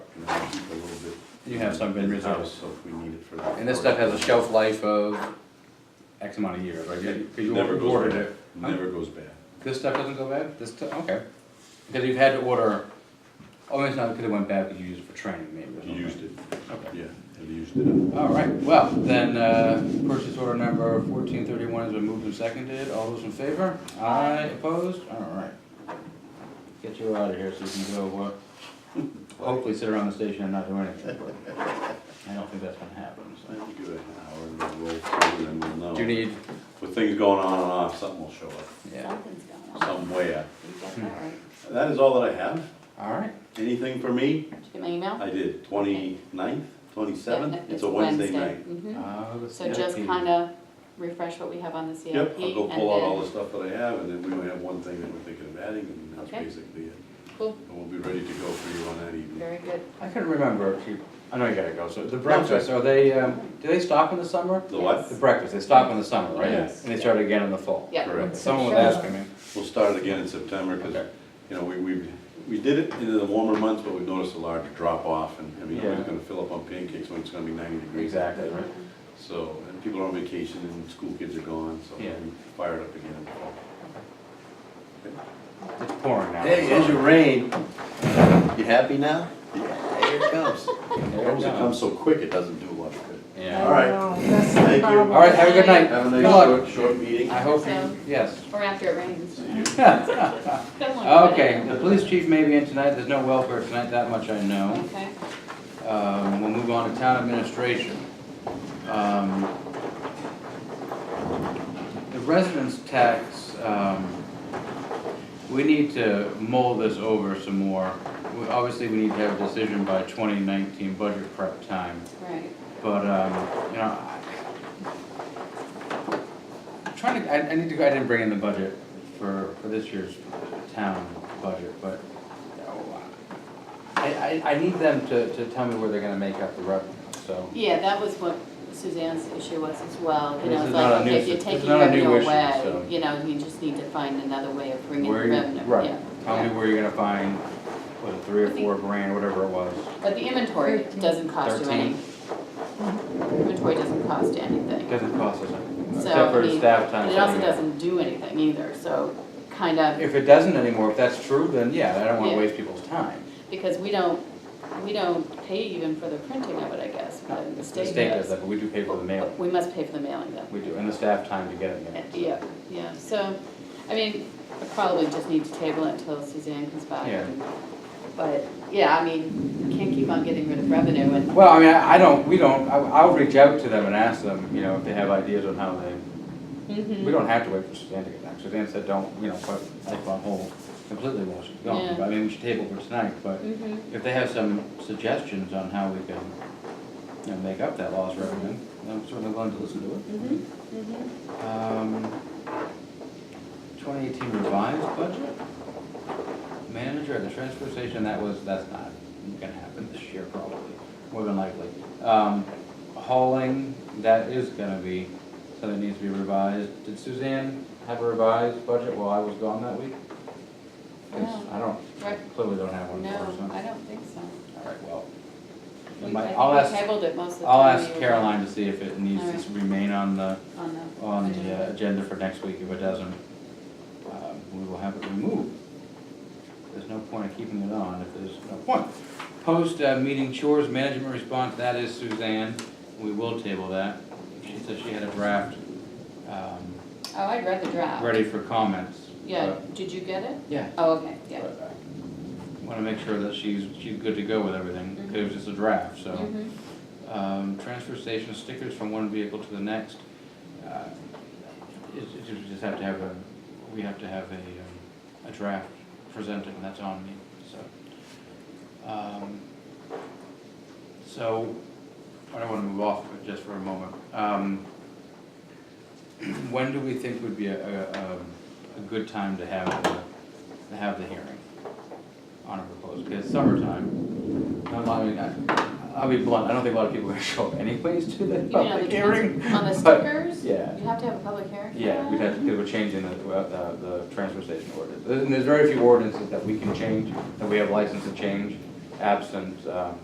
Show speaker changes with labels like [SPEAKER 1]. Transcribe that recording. [SPEAKER 1] You have some in reserve.
[SPEAKER 2] in-house, so if we need it for that.
[SPEAKER 1] And this stuff has a shelf life of X amount of years, right? You- 'cause you
[SPEAKER 2] Never goes
[SPEAKER 1] ordered
[SPEAKER 2] bad.
[SPEAKER 1] it. Huh?
[SPEAKER 2] Never goes bad.
[SPEAKER 1] This stuff doesn't go bad? This, stu- okay. Because you've had to order, oh, it's not because it went bad, because you used it for training maybe or
[SPEAKER 2] You used
[SPEAKER 1] something.
[SPEAKER 2] it,
[SPEAKER 1] Okay.
[SPEAKER 2] yeah, have used it up.
[SPEAKER 1] All right, well, then, uh, purchase order number fourteen thirty-one has been moved and seconded. All those in favor? Aye, opposed? All right. Get you out of here so you can go, uh, hopefully sit around the station and not do anything. but I don't think that's gonna happen,
[SPEAKER 2] I
[SPEAKER 1] so.
[SPEAKER 2] think give it an hour and we'll roll through and then we'll
[SPEAKER 1] Do you
[SPEAKER 2] know.
[SPEAKER 1] need,
[SPEAKER 2] With things going on and off, something will show up,
[SPEAKER 1] yeah,
[SPEAKER 3] Something's going on.
[SPEAKER 2] some way. uh,
[SPEAKER 3] You got that right.
[SPEAKER 2] That is all that I have.
[SPEAKER 1] all right.
[SPEAKER 2] Anything for me?
[SPEAKER 3] Did you get my email?
[SPEAKER 2] I did, 29th,
[SPEAKER 3] Yeah,
[SPEAKER 2] 27th,
[SPEAKER 3] it-
[SPEAKER 2] it's a Wednesday night.
[SPEAKER 3] mhm.
[SPEAKER 1] Uh, let's
[SPEAKER 3] So
[SPEAKER 1] see.
[SPEAKER 3] just kind of refresh what we have on the CIP.
[SPEAKER 2] Yep, I'll go
[SPEAKER 3] and
[SPEAKER 2] pull out all the
[SPEAKER 3] then-
[SPEAKER 2] stuff that I have, and then we only have one thing that we're thinking of adding, and that's
[SPEAKER 3] Okay.
[SPEAKER 2] basically it.
[SPEAKER 3] Cool,
[SPEAKER 2] And we'll be ready to go for you on that evening.
[SPEAKER 3] very good.
[SPEAKER 1] I couldn't remember if you, I know you gotta go, so the breakfast, are they, um, do they stop in the summer?
[SPEAKER 2] The what?
[SPEAKER 1] The breakfast, they stop in the summer, right? And
[SPEAKER 3] Yes.
[SPEAKER 1] they start again in the fall?
[SPEAKER 3] Yeah.
[SPEAKER 2] Correct.
[SPEAKER 1] Someone was asking me.
[SPEAKER 2] We'll start it again in September, because,
[SPEAKER 1] Okay.
[SPEAKER 2] you know, we, we, we did it in the warmer months, but we've noticed a large drop off, and, I mean,
[SPEAKER 1] Yeah.
[SPEAKER 2] nobody's gonna fill up on pancakes when it's gonna be ninety degrees.
[SPEAKER 1] Exactly, right?
[SPEAKER 2] So, and people are on vacation, and school kids are gone, so we
[SPEAKER 1] Yeah.
[SPEAKER 2] fire it up again.
[SPEAKER 1] It's pouring now.
[SPEAKER 2] rain. You happy now? Yeah, here it comes.
[SPEAKER 1] There it
[SPEAKER 2] It comes
[SPEAKER 1] comes.
[SPEAKER 2] so quick, it doesn't do much good.
[SPEAKER 1] Yeah.
[SPEAKER 2] All right. Thank you.
[SPEAKER 1] All right, have a good night.
[SPEAKER 2] Have a
[SPEAKER 1] Good luck.
[SPEAKER 2] nice, short, short meeting.
[SPEAKER 1] I hope
[SPEAKER 3] So-
[SPEAKER 1] you, yes.
[SPEAKER 3] Or after it rains.
[SPEAKER 2] See you.
[SPEAKER 3] Good one.
[SPEAKER 1] Okay, the police chief may be in tonight, there's no welfare tonight, that much I know.
[SPEAKER 3] Okay,
[SPEAKER 1] Um, we'll move on to town administration. Um, The residence tax, um, we need to mull this over some more. We- Obviously, we need to have a decision by twenty nineteen budget prep time.
[SPEAKER 3] right.
[SPEAKER 1] But, um, you know, I- I'm trying to, I, I need to go, I didn't bring in the budget for, for this year's town budget, but you know, I, I, I need them to, to tell me where they're gonna make up the revenue, so.
[SPEAKER 3] Yeah, that was what Suzanne's issue was as well,
[SPEAKER 1] This
[SPEAKER 3] you know,
[SPEAKER 1] is
[SPEAKER 3] it's
[SPEAKER 1] not a
[SPEAKER 3] like,
[SPEAKER 1] new-
[SPEAKER 3] okay, if you're
[SPEAKER 1] this is
[SPEAKER 3] taking
[SPEAKER 1] not a new
[SPEAKER 3] revenue
[SPEAKER 1] issue, so-
[SPEAKER 3] away, you know, you just need to find another way of bringing
[SPEAKER 1] where you-
[SPEAKER 3] revenue, yeah.
[SPEAKER 1] Right, tell me
[SPEAKER 3] yeah.
[SPEAKER 1] where you're gonna find, what, three or four grand, whatever it was.
[SPEAKER 3] But the inventory doesn't cost you any. Inventory doesn't cost you anything.
[SPEAKER 1] It doesn't cost us anything,
[SPEAKER 3] So,
[SPEAKER 1] except
[SPEAKER 3] I
[SPEAKER 1] for
[SPEAKER 3] mean,
[SPEAKER 1] staff
[SPEAKER 3] but
[SPEAKER 1] time.
[SPEAKER 3] It also
[SPEAKER 1] saving.
[SPEAKER 3] doesn't do anything either, so kind of,
[SPEAKER 1] If it doesn't anymore, if that's true, then yeah, I don't wanna
[SPEAKER 3] Yeah.
[SPEAKER 1] waste people's time.
[SPEAKER 3] because we don't, we don't pay even for the printing of it, I guess, but the
[SPEAKER 1] The
[SPEAKER 3] state
[SPEAKER 1] state
[SPEAKER 3] does.
[SPEAKER 1] does that, but we do pay for the mailing.
[SPEAKER 3] We must pay for the mailing though.
[SPEAKER 1] We do, and the staff time to get it
[SPEAKER 3] Uh,
[SPEAKER 1] there.
[SPEAKER 3] Yeah, yeah, so, I mean, I probably just need to table it until Suzanne comes back.
[SPEAKER 1] Yeah.
[SPEAKER 3] and- But, yeah, I mean, you can't keep on getting rid of revenue and,
[SPEAKER 1] Well, I mean, I I don't, we don't, I- I'll reach out to them and ask them, you know, if they have ideas on how they,
[SPEAKER 3] Mhm.
[SPEAKER 1] we don't have to wait for Suzanne to get back. Suzanne said, don't, you know, put life on hold completely while she's gone.
[SPEAKER 3] Yeah.
[SPEAKER 1] But I mean, we should table for tonight, but
[SPEAKER 3] Mhm.
[SPEAKER 1] if they have some suggestions on how we can, you know, make up that lost revenue, I'm certainly willing to listen to it.
[SPEAKER 3] Mhm. Mhm.
[SPEAKER 1] Um, 2018 revised budget? Manager at the transfer station, that was, that's not gonna happen this year probably, more than likely. Um, Hauling, that is gonna be, something that needs to be revised. Did Suzanne have a revised budget while I was gone that week? 'Cause I don't, I
[SPEAKER 3] Right.
[SPEAKER 1] clearly don't have one for her,
[SPEAKER 3] No, I don't think so.
[SPEAKER 1] so. All right, well,
[SPEAKER 3] We-
[SPEAKER 1] it might-
[SPEAKER 3] I think
[SPEAKER 1] I'll
[SPEAKER 3] we
[SPEAKER 1] ask,
[SPEAKER 3] tabled it most of the time.
[SPEAKER 1] I'll ask
[SPEAKER 3] we were
[SPEAKER 1] Caroline to see if it needs
[SPEAKER 3] All right.
[SPEAKER 1] to remain on the
[SPEAKER 3] On the.
[SPEAKER 1] on the
[SPEAKER 3] agenda.
[SPEAKER 1] uh, agenda for next week. If it doesn't, um, we will have it removed. There's no point in keeping it on if there's no point. Post-meeting chores, management response, that is Suzanne. We will table that. She said she had a draft um,
[SPEAKER 3] Oh, I read the draft.
[SPEAKER 1] ready for comments.
[SPEAKER 3] Yeah,
[SPEAKER 1] but-
[SPEAKER 3] did you get it?
[SPEAKER 1] Yeah.
[SPEAKER 3] Oh, okay, yeah.
[SPEAKER 1] Want to make sure that she's, she's good to go with everything, because it was just a draft, so.
[SPEAKER 3] Mhm.
[SPEAKER 1] Um, transfer station stickers from one vehicle to the next. uh, Is, is we just have to have a, we have to have a, um, a draft presented, and that's on me, so. Um, So, I don't wanna move off it just for a moment. Um, When do we think would be a, a, um, a good time to have, the- to have the hearing on a proposal? Because summertime, not a lot of- I- I'll be blunt, I don't think a lot of people are gonna show up anyways to
[SPEAKER 3] You
[SPEAKER 1] that
[SPEAKER 3] mean on
[SPEAKER 1] public
[SPEAKER 3] the-
[SPEAKER 1] hearing.
[SPEAKER 3] On the
[SPEAKER 1] but-
[SPEAKER 3] stickers?
[SPEAKER 1] yeah.
[SPEAKER 3] You have to have a public hearing? for
[SPEAKER 1] Yeah, we'd
[SPEAKER 3] that?
[SPEAKER 1] have, because we're changing the, uh, the transfer station ordinance. And there's very few ordinances that we can change, that we have license to change, absent, um,